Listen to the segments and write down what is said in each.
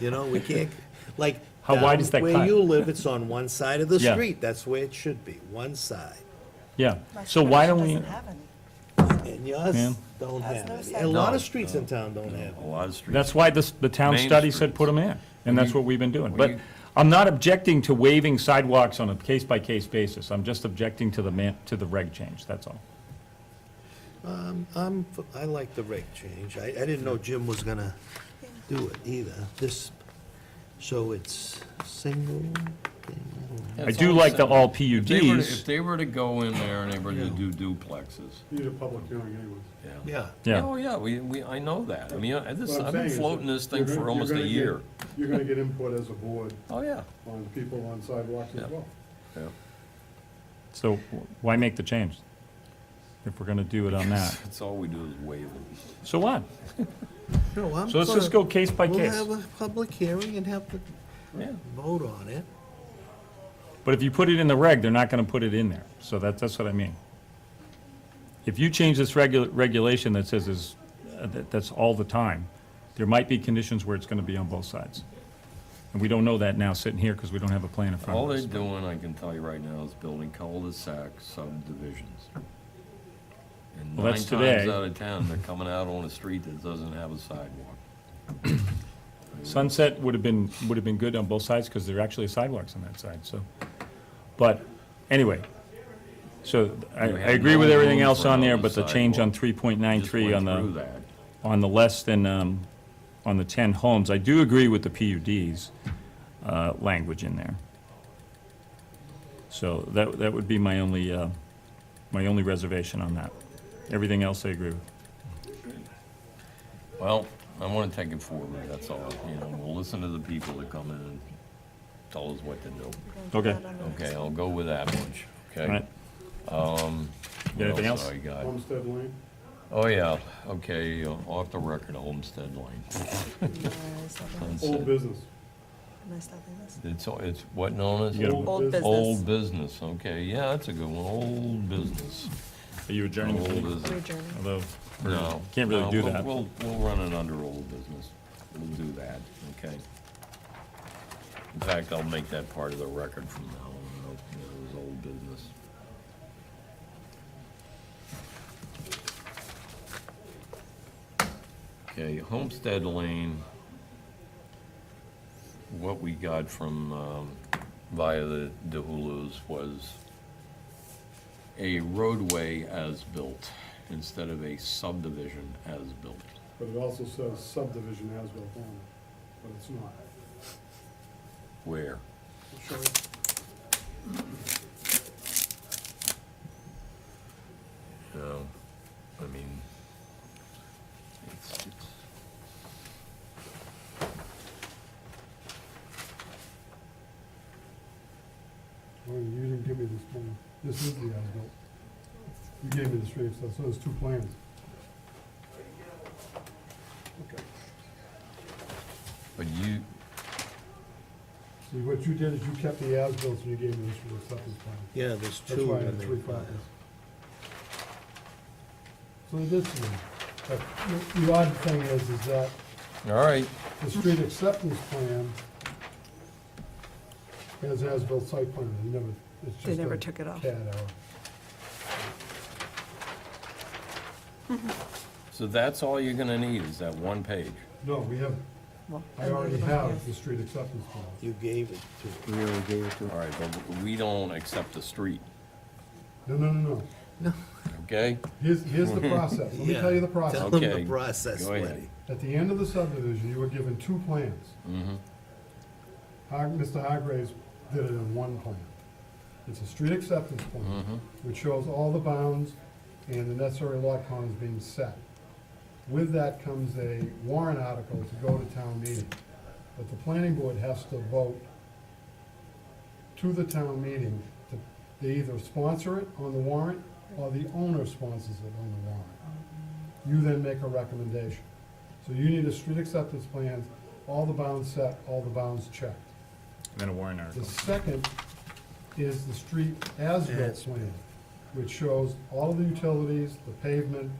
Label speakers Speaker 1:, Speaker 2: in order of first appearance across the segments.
Speaker 1: You know, we can't, like.
Speaker 2: How wide
Speaker 1: down
Speaker 2: is that
Speaker 1: Where
Speaker 2: cut?
Speaker 1: you live, it's on one side of the
Speaker 2: Yeah.
Speaker 1: street. That's where it should be, one side.
Speaker 2: Yeah,
Speaker 3: My
Speaker 2: so why
Speaker 3: supervision
Speaker 2: don't we,
Speaker 3: doesn't have any.
Speaker 1: And yours
Speaker 2: Yeah.
Speaker 1: don't
Speaker 3: Has
Speaker 1: have
Speaker 3: no
Speaker 1: it.
Speaker 3: side.
Speaker 1: A lot
Speaker 4: No,
Speaker 1: of streets in town don't have
Speaker 4: A
Speaker 1: it.
Speaker 4: lot of streets.
Speaker 2: that's why this, the town
Speaker 4: Main
Speaker 2: study said
Speaker 4: streets.
Speaker 2: put them in, and that's what we've been doing. But
Speaker 4: you-
Speaker 2: I'm not objecting to waiving sidewalks on a case-by-case basis, I'm just objecting to the man, to the reg change, that's all.
Speaker 1: I'm, f- I like the rate change. I, I didn't know Jim was gonna do it either. This, so it's single,
Speaker 2: I do like the all
Speaker 4: They were to- If
Speaker 2: PUDs,
Speaker 4: they were to go in there and they were to do duplexes,
Speaker 5: Need a public hearing anyways.
Speaker 1: yeah.
Speaker 2: yeah,
Speaker 4: Oh, yeah, we, we, I know that. I mean, I- this,
Speaker 5: What I'm
Speaker 4: I've
Speaker 5: saying
Speaker 4: been
Speaker 5: is that
Speaker 4: floating this thing
Speaker 5: you're gonna-
Speaker 4: for
Speaker 5: you're
Speaker 4: almost
Speaker 5: gonna
Speaker 4: a
Speaker 5: get-
Speaker 4: year.
Speaker 5: You're gonna get input as a board
Speaker 4: Oh, yeah.
Speaker 5: on people on sidewalks
Speaker 4: Yeah.
Speaker 5: as well.
Speaker 4: yeah.
Speaker 2: so wh- why make the change? If we're gonna do it on that,
Speaker 4: That's all we do is wave them.
Speaker 2: so what?
Speaker 1: No, I'm
Speaker 2: So let's just
Speaker 1: gonna-
Speaker 2: go case by
Speaker 1: We'll
Speaker 2: case.
Speaker 1: have a public hearing and have to
Speaker 4: Yeah.
Speaker 1: vote on it.
Speaker 2: But if you put it in the reg, they're not gonna put it in there, so that, that's what I mean. If you change this regu- regulation that says is, uh, that, that's all the time, there might be conditions where it's gonna be on both sides. And we don't know that now sitting here, because we don't have a plan in front
Speaker 4: All
Speaker 2: of
Speaker 4: they're
Speaker 2: us.
Speaker 4: doing, I can tell you right now, is building cul-de-sac subdivisions. And
Speaker 2: Well,
Speaker 4: nine
Speaker 2: that's
Speaker 4: times
Speaker 2: today.
Speaker 4: out of ten, they're coming out on a street that doesn't have a sidewalk.
Speaker 2: Sunset would have been, would have been good on both sides, because there are actually sidewalks on that side, so. But, anyway, so I, I
Speaker 4: You have
Speaker 2: agree
Speaker 4: no
Speaker 2: with everything
Speaker 4: room
Speaker 2: else
Speaker 4: for
Speaker 2: on there,
Speaker 4: another
Speaker 2: but the change on
Speaker 4: sidewalk.
Speaker 2: three point nine
Speaker 4: Just
Speaker 2: three
Speaker 4: went
Speaker 2: on the.
Speaker 4: through that.
Speaker 2: on the less than, um, on the 10 homes, I do agree with the PUD's uh, language in there. So that, that would be my only, uh, my only reservation on that. Everything else I agree with.
Speaker 4: Well, I want to take it forward, that's all, you know, we'll listen to the people that come in and tell us what to do.
Speaker 2: Okay.
Speaker 3: Not on the
Speaker 4: Okay, I'll go with that much, okay?
Speaker 2: All right?
Speaker 4: What
Speaker 2: Anything else?
Speaker 4: I got?
Speaker 5: Homestead Lane,
Speaker 4: Oh, yeah, okay, uh, off the record, Homestead Lane.
Speaker 3: list. Nice, nothing
Speaker 5: old
Speaker 4: Sunset.
Speaker 5: business.
Speaker 3: nice, nothing list.
Speaker 4: It's, it's what known
Speaker 2: You
Speaker 4: as?
Speaker 2: gotta-
Speaker 3: Old business.
Speaker 4: Old business, okay, yeah, that's a good one, old business.
Speaker 2: Are you adjourning the
Speaker 4: Old
Speaker 2: meeting?
Speaker 4: business.
Speaker 3: We're adjourning.
Speaker 2: Although,
Speaker 4: No.
Speaker 2: can't really
Speaker 4: no,
Speaker 2: do
Speaker 4: we'll-
Speaker 2: that.
Speaker 4: We'll, we'll run it under old business. We'll do that, okay? In fact, I'll make that part of the record from now on, you know, it was old business. Okay, Homestead Lane, what we got from, um, via the DeHulu's was a roadway as built instead of a subdivision as built.
Speaker 5: But it also says subdivision as well, on it, but it's not.
Speaker 4: Where?
Speaker 5: Sure.
Speaker 4: You know, I mean, it's, it's.
Speaker 5: Oh, You didn't give me this plan. This is the as-built. You gave me the street, so so there's two plans. Okay.
Speaker 4: But you,
Speaker 5: See, what you did is you kept the as-built, and you gave me this for the acceptance plan.
Speaker 1: Yeah, there's
Speaker 5: That's
Speaker 1: two.
Speaker 5: why I
Speaker 1: in
Speaker 5: had three
Speaker 1: there.
Speaker 5: copies. So this one, but the- the odd thing is, is that
Speaker 4: all right,
Speaker 5: the street acceptance plan has as-built site plan, they never, it's just.
Speaker 3: They never
Speaker 5: a
Speaker 3: took it off.
Speaker 5: CAD error.
Speaker 4: so that's all you're gonna need is that one page.
Speaker 5: No, we have,
Speaker 3: Well,
Speaker 5: I already have the street acceptance plan.
Speaker 1: You gave it to him.
Speaker 4: All right, but we don't accept the street,
Speaker 5: No, no, no, no.
Speaker 4: okay?
Speaker 5: Here's, here's the process. Let me tell you the
Speaker 1: Yeah.
Speaker 5: process.
Speaker 1: Tell him
Speaker 4: Okay,
Speaker 1: the process,
Speaker 4: go ahead.
Speaker 1: Lenny.
Speaker 5: At the end of the subdivision, you were given two plans.
Speaker 4: Mm-hmm,
Speaker 5: Har- Mr. Hargraves did it in one plan. It's a street acceptance
Speaker 4: Mm-hmm.
Speaker 5: plan, which shows all the bounds and the necessary lot cons being set. With that comes a warrant article to go to town meeting. But the planning board has to vote to the town meeting. to- They either sponsor it on the warrant, or the owner sponsors it on the warrant. You then make a recommendation. So you need a street acceptance plan, all the bounds set, all the bounds checked.
Speaker 2: And then a warrant
Speaker 5: The
Speaker 2: article.
Speaker 5: second is the street as-built plan, which shows all the utilities, the pavement,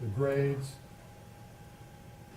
Speaker 5: the grades,